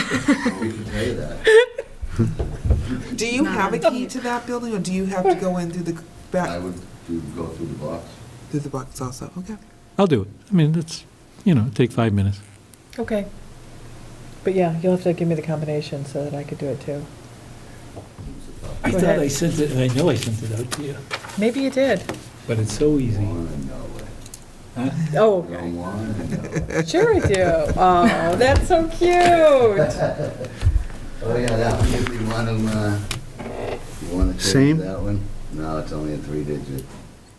We can tell you that. Do you have a key to that building, or do you have to go in through the I back, would do, go through the box. through the box also? Okay. I'll do it. I mean, that's, you know, take five minutes. Okay. But yeah, you'll have to give me the combination so that I could do it too. I Go thought ahead. I sent it, I know I sent it out to you, Maybe you did. but it's so easy. Wanna know it. Oh, Don't wanna know it. sure I do. Oh, that's so cute. Oh, yeah, that one, if you want them, uh, you wanna take Same? that one? No, it's only a three digit,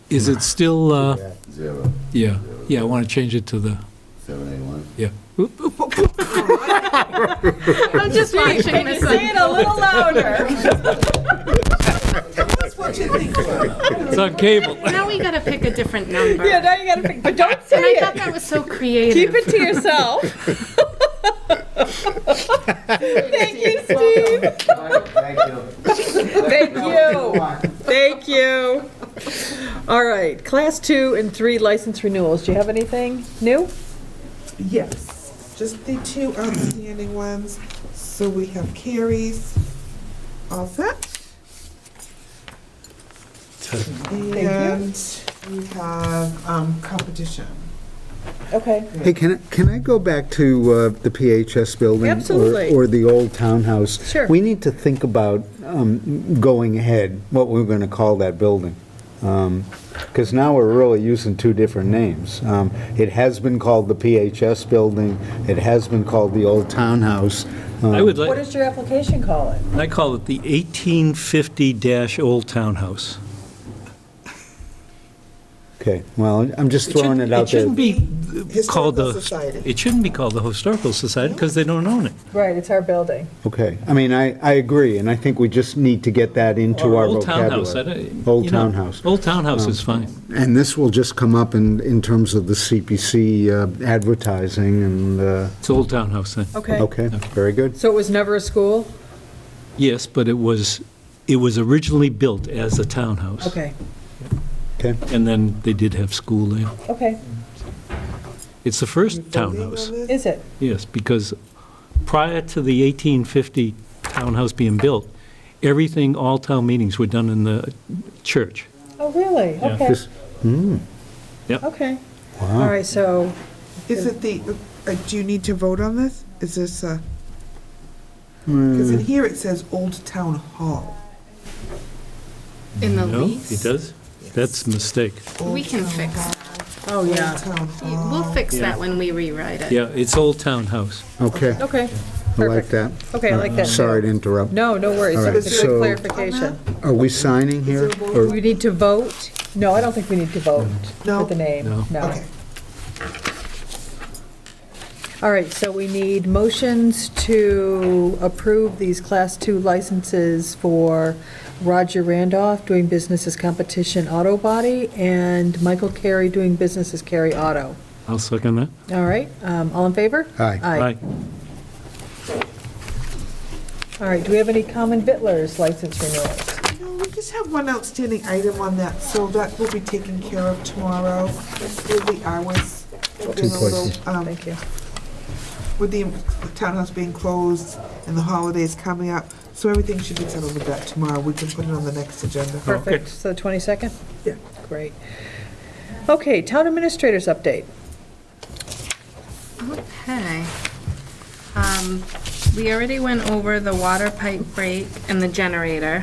Is it still, uh, zero, yeah, yeah, I want to change it to the, seven, eight, one. yeah. I'm just watching this. Say it a little louder. That's what you think. It's on cable. Now we gotta pick a different number. Yeah, now you gotta think, but don't say And I thought it. that was so Keep creative. it to yourself. Thank you, Steve. Thank you. Thank you. Thank you. All right, class two and three license renewals. Do you have anything new? Yes, just the two outstanding ones. So we have Carrie's, all set. And we have um, competition. Okay. Hey, can, I- can I go back to uh, the PHS building? or- Absolutely. Or the old townhouse? Sure. We need to think about um, going ahead, what we're going to call that building. Because now we're really using two different names. Um, It has been called the PHS building, it has been called the old townhouse. Uh, I would What like, does your application call it? I call it the 1850-Old Town House. Okay, well, I'm just throwing it out there. shouldn't be called Historical the, Society. it shouldn't be called the Historical Society because they don't own it. Right, it's our building. Okay, I mean, I, I agree, and I think we just need to get that into Or our Old Town House, I vocabulary. don't- Old you know, townhouse. Old Town House is fine. And this will just come up in, in terms of the CPC uh, advertising and, uh, It's Old Town House then. Okay. okay, very good. So it was never a school? Yes, but it was, it was originally built as a townhouse. Okay, Okay, And then they did have school there. okay. It's the first townhouse. Is it? Yes, because prior to the 1850 townhouse being built, everything, all town meetings were done in the church. Oh, really? Yeah. Okay, This- hmm, okay. All wow. right, so, Is it the, uh, do you need to vote on this? Is this a? Because in here it says Old Town Hall. In the No, lease. it does? That's a mistake. We can fix. oh, Old yeah. Town Hall. We'll fix Yeah. that when we rewrite it. Yeah, it's Old Town House. Okay, Okay, I like perfect. that. Okay, I like that. Sorry to interrupt. No, no worries. All It right, was a so- good clarification. Are we signing here? Do Or- we need to vote? No, I don't think we need to vote for No. the name. No. No. Okay. All right, so we need motions to approve these Class Two licenses for Roger Randolph doing business as Competition Auto Body and Michael Carey doing business as Carey Auto. I'll second that. All right, um, all in favor? Aye. Aye. All right, do we have any common vittler's license renewals? No, we just have one outstanding item on that, so that will be taken care of tomorrow with the hours. We're doing a little, places. um, Thank you. With the townhouse being closed and the holidays coming up, so everything should be settled with that tomorrow. We can put it on the next agenda. Perfect, so the 22nd? Yeah. Great. Okay, town administrators update. Okay. Um, We already went over the water pipe break and the generator.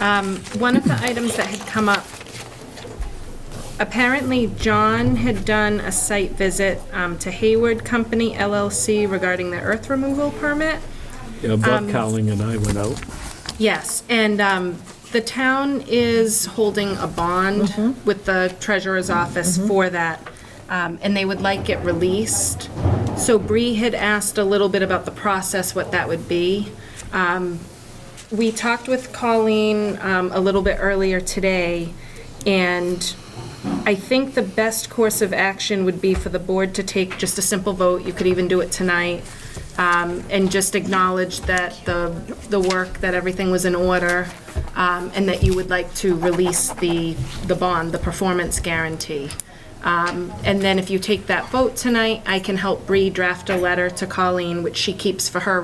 Um, One of the items that had come up, apparently John had done a site visit um, to Hayward Company LLC regarding the earth removal permit. Yeah, Um, Bob Cowling and I went out. Yes, and um, the town is holding a bond with the treasurer's office for that, um, and they would like it released. So Bree had asked a little bit about the process, what that would be. Um, We talked with Colleen um, a little bit earlier today, and I think the best course of action would be for the board to take just a simple vote, you could even do it tonight, um, and just acknowledge that the, the work, that everything was in order, um, and that you would like to release the, the bond, the performance guarantee. Um, And then if you take that vote tonight, I can help Bree draft a letter to Colleen, which she keeps for her